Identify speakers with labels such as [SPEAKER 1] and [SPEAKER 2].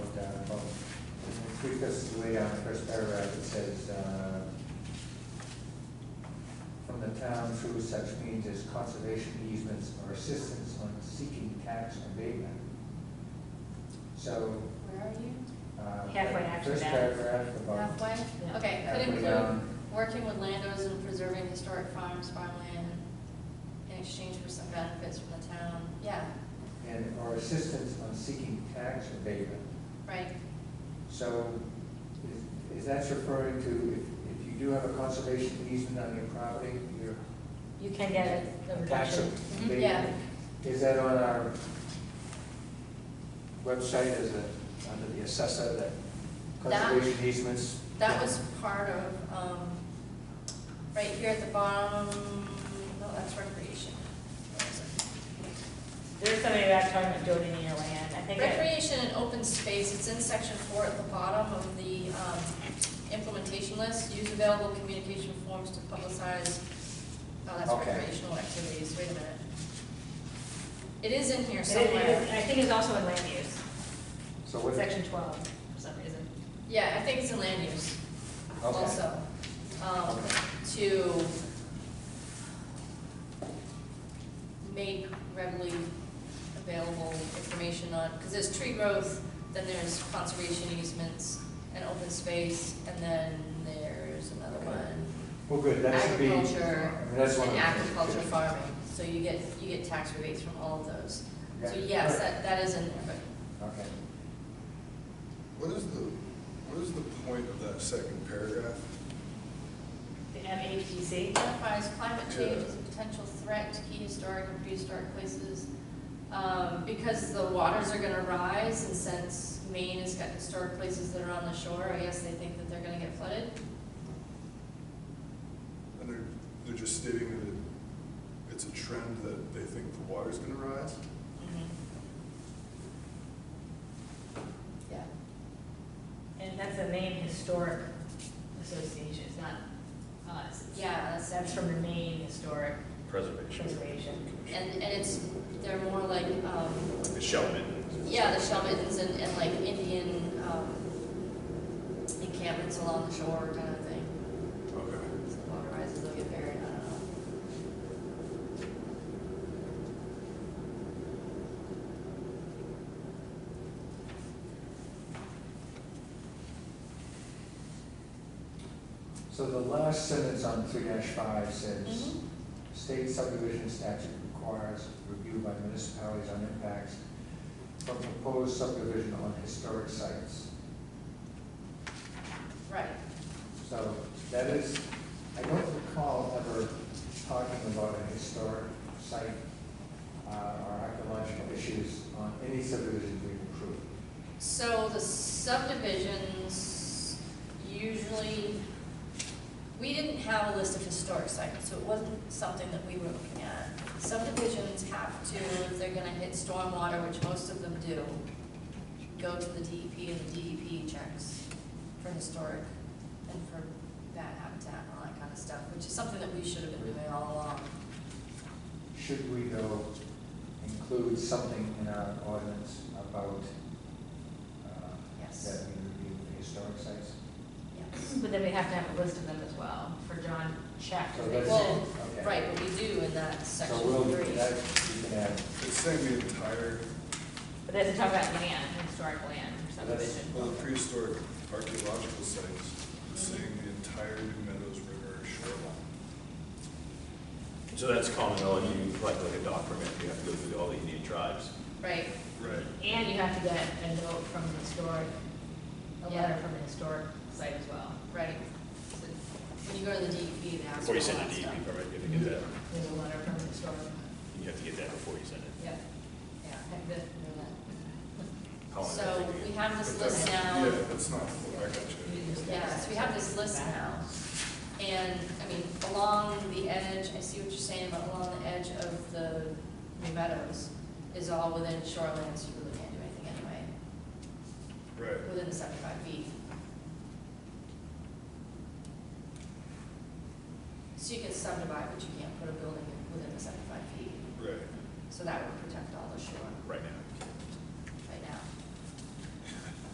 [SPEAKER 1] because way down the first paragraph, it says, uh, from the town through such means as conservation easements or assistance on seeking tax abatement. So,
[SPEAKER 2] Where are you?
[SPEAKER 1] uh.
[SPEAKER 3] Halfway after
[SPEAKER 1] First
[SPEAKER 3] that.
[SPEAKER 1] paragraph about
[SPEAKER 2] Halfway?
[SPEAKER 3] Yeah.
[SPEAKER 2] Okay, could
[SPEAKER 1] Halfway
[SPEAKER 2] include
[SPEAKER 1] down.
[SPEAKER 2] working with landowners and preserving historic farms, farmland, in exchange for some benefits from the town. Yeah,
[SPEAKER 1] and, or assistance on seeking tax abatement.
[SPEAKER 2] right.
[SPEAKER 1] So is- is that referring to if, if you do have a conservation easement on your property, your
[SPEAKER 3] You can get it, the
[SPEAKER 1] tax
[SPEAKER 3] reduction. Mm-hmm.
[SPEAKER 1] abatement?
[SPEAKER 2] Mm-hmm. Yeah.
[SPEAKER 1] Is that on our website as a, under the assessor, that
[SPEAKER 2] That-
[SPEAKER 1] conservation easements?
[SPEAKER 2] That was part of, um, right here at the bottom, no, that's recreation. Where is it?
[SPEAKER 3] There was somebody about talking about donating your land, I think. it-
[SPEAKER 2] Recreation and open space, it's in section four at the bottom of the, um, implementation list. Use available communication forms to publicize, oh, that's
[SPEAKER 1] Okay.
[SPEAKER 2] recreational activities, wait a minute. It is in here
[SPEAKER 3] it- it-
[SPEAKER 2] somewhere.
[SPEAKER 3] I think it's also in land use,
[SPEAKER 1] So what,
[SPEAKER 3] section twelve, for some reason.
[SPEAKER 2] Yeah, I think it's in land use
[SPEAKER 1] Okay.
[SPEAKER 2] also. Um,
[SPEAKER 1] Okay.
[SPEAKER 2] to make readily available information on, because there's tree growth, then there's conservation easements and open space, and then there's another
[SPEAKER 1] Okay.
[SPEAKER 2] one.
[SPEAKER 1] well, good, that should be.
[SPEAKER 2] Agriculture
[SPEAKER 1] I mean, that's one
[SPEAKER 2] And
[SPEAKER 1] of the things.
[SPEAKER 2] agriculture farming, so you get, you get tax rebates from all of those. So
[SPEAKER 1] Yeah.
[SPEAKER 2] yes, that, that is in there, but
[SPEAKER 1] Okay.
[SPEAKER 4] What is the, what is the point of that second paragraph?
[SPEAKER 3] The MHDC,
[SPEAKER 2] identifies climate change
[SPEAKER 4] Yeah.
[SPEAKER 2] as a potential threat to key historic and prehistoric places. Um, because the waters are gonna rise and since Maine has got historic places that are on the shore, I guess they think that they're gonna get flooded.
[SPEAKER 4] And they're, they're just stating that it's a trend that they think the water's gonna rise?
[SPEAKER 3] Mm-hmm.
[SPEAKER 2] Yeah,
[SPEAKER 3] and that's the Maine Historic Association, it's not us. It's-
[SPEAKER 2] yeah, that's,
[SPEAKER 3] That's from the Maine Historic
[SPEAKER 5] Preservation.
[SPEAKER 3] Preservation.
[SPEAKER 2] and, and it's, they're more like, um,
[SPEAKER 5] The Shellman.
[SPEAKER 2] yeah, the shell mittens and, and like Indian, um, encampments along the shore kind of thing.
[SPEAKER 4] Okay.
[SPEAKER 2] So the water rises, they'll get buried, I don't know.
[SPEAKER 1] So the last sentence on three five says,
[SPEAKER 2] Mhm.
[SPEAKER 1] state subdivision statute requires review by municipalities on impacts from proposed subdivision on historic sites.
[SPEAKER 2] Right.
[SPEAKER 1] So that is, I don't recall ever talking about a historic site uh, or archaeological issues on any subdivision we've approved.
[SPEAKER 2] So the subdivisions usually, we didn't have a list of historic sites, so it wasn't something that we were looking at. Subdivisions have to, if they're gonna hit stormwater, which most of them do, go to the DEP and the DEP checks for historic and for bad habitat and all that kind of stuff, which is something that we should have been doing all along.
[SPEAKER 1] Should we though include something in our ordinance about uh,
[SPEAKER 2] Yes.
[SPEAKER 1] that we review the historic sites?
[SPEAKER 2] Yes.
[SPEAKER 3] But then we have to have a list of them as well for John Chapter.
[SPEAKER 1] So that's-
[SPEAKER 2] Well,
[SPEAKER 1] okay.
[SPEAKER 2] right, but we do in that section
[SPEAKER 1] So we'll,
[SPEAKER 2] three.
[SPEAKER 1] that, you can add,
[SPEAKER 4] It's saying the entire,
[SPEAKER 3] But it doesn't talk about land, historic land or
[SPEAKER 1] So that's-
[SPEAKER 3] subdivision.
[SPEAKER 4] well, the prehistoric archaeological sites, it's saying the entire New Meadows River shoreline.
[SPEAKER 5] So that's common law, you like, like a dock permit, you have to go through all the Indian tribes.
[SPEAKER 2] Right,
[SPEAKER 4] Right.
[SPEAKER 3] And you have to get a note from the historic, a
[SPEAKER 2] Yeah.
[SPEAKER 3] letter from the historic site as well.
[SPEAKER 2] right. So When you go to the DEP, they ask for
[SPEAKER 5] Before
[SPEAKER 2] all
[SPEAKER 5] you send
[SPEAKER 2] that
[SPEAKER 5] a DEP
[SPEAKER 2] stuff.
[SPEAKER 5] permit, you have to get that,
[SPEAKER 3] There's a letter from the historic,
[SPEAKER 5] you have to get that before you send it.
[SPEAKER 3] yep,
[SPEAKER 2] Yeah.
[SPEAKER 3] I've been through
[SPEAKER 5] How long does that
[SPEAKER 2] So
[SPEAKER 5] take
[SPEAKER 2] we
[SPEAKER 5] you?
[SPEAKER 2] have this
[SPEAKER 4] But that's-
[SPEAKER 2] list now,
[SPEAKER 4] Yeah, that's not, I got you.
[SPEAKER 3] that.
[SPEAKER 2] yes, we have this list now. And, I mean, along the edge, I see what you're saying, but along the edge of the New Meadows is all within shorelands, you really can't do anything anyway,
[SPEAKER 4] Right.
[SPEAKER 2] within the seventy-five feet. So you can subdivide, but you can't put a building within the seventy-five feet,
[SPEAKER 4] Right,
[SPEAKER 2] so that would protect all the shore.
[SPEAKER 5] Right now.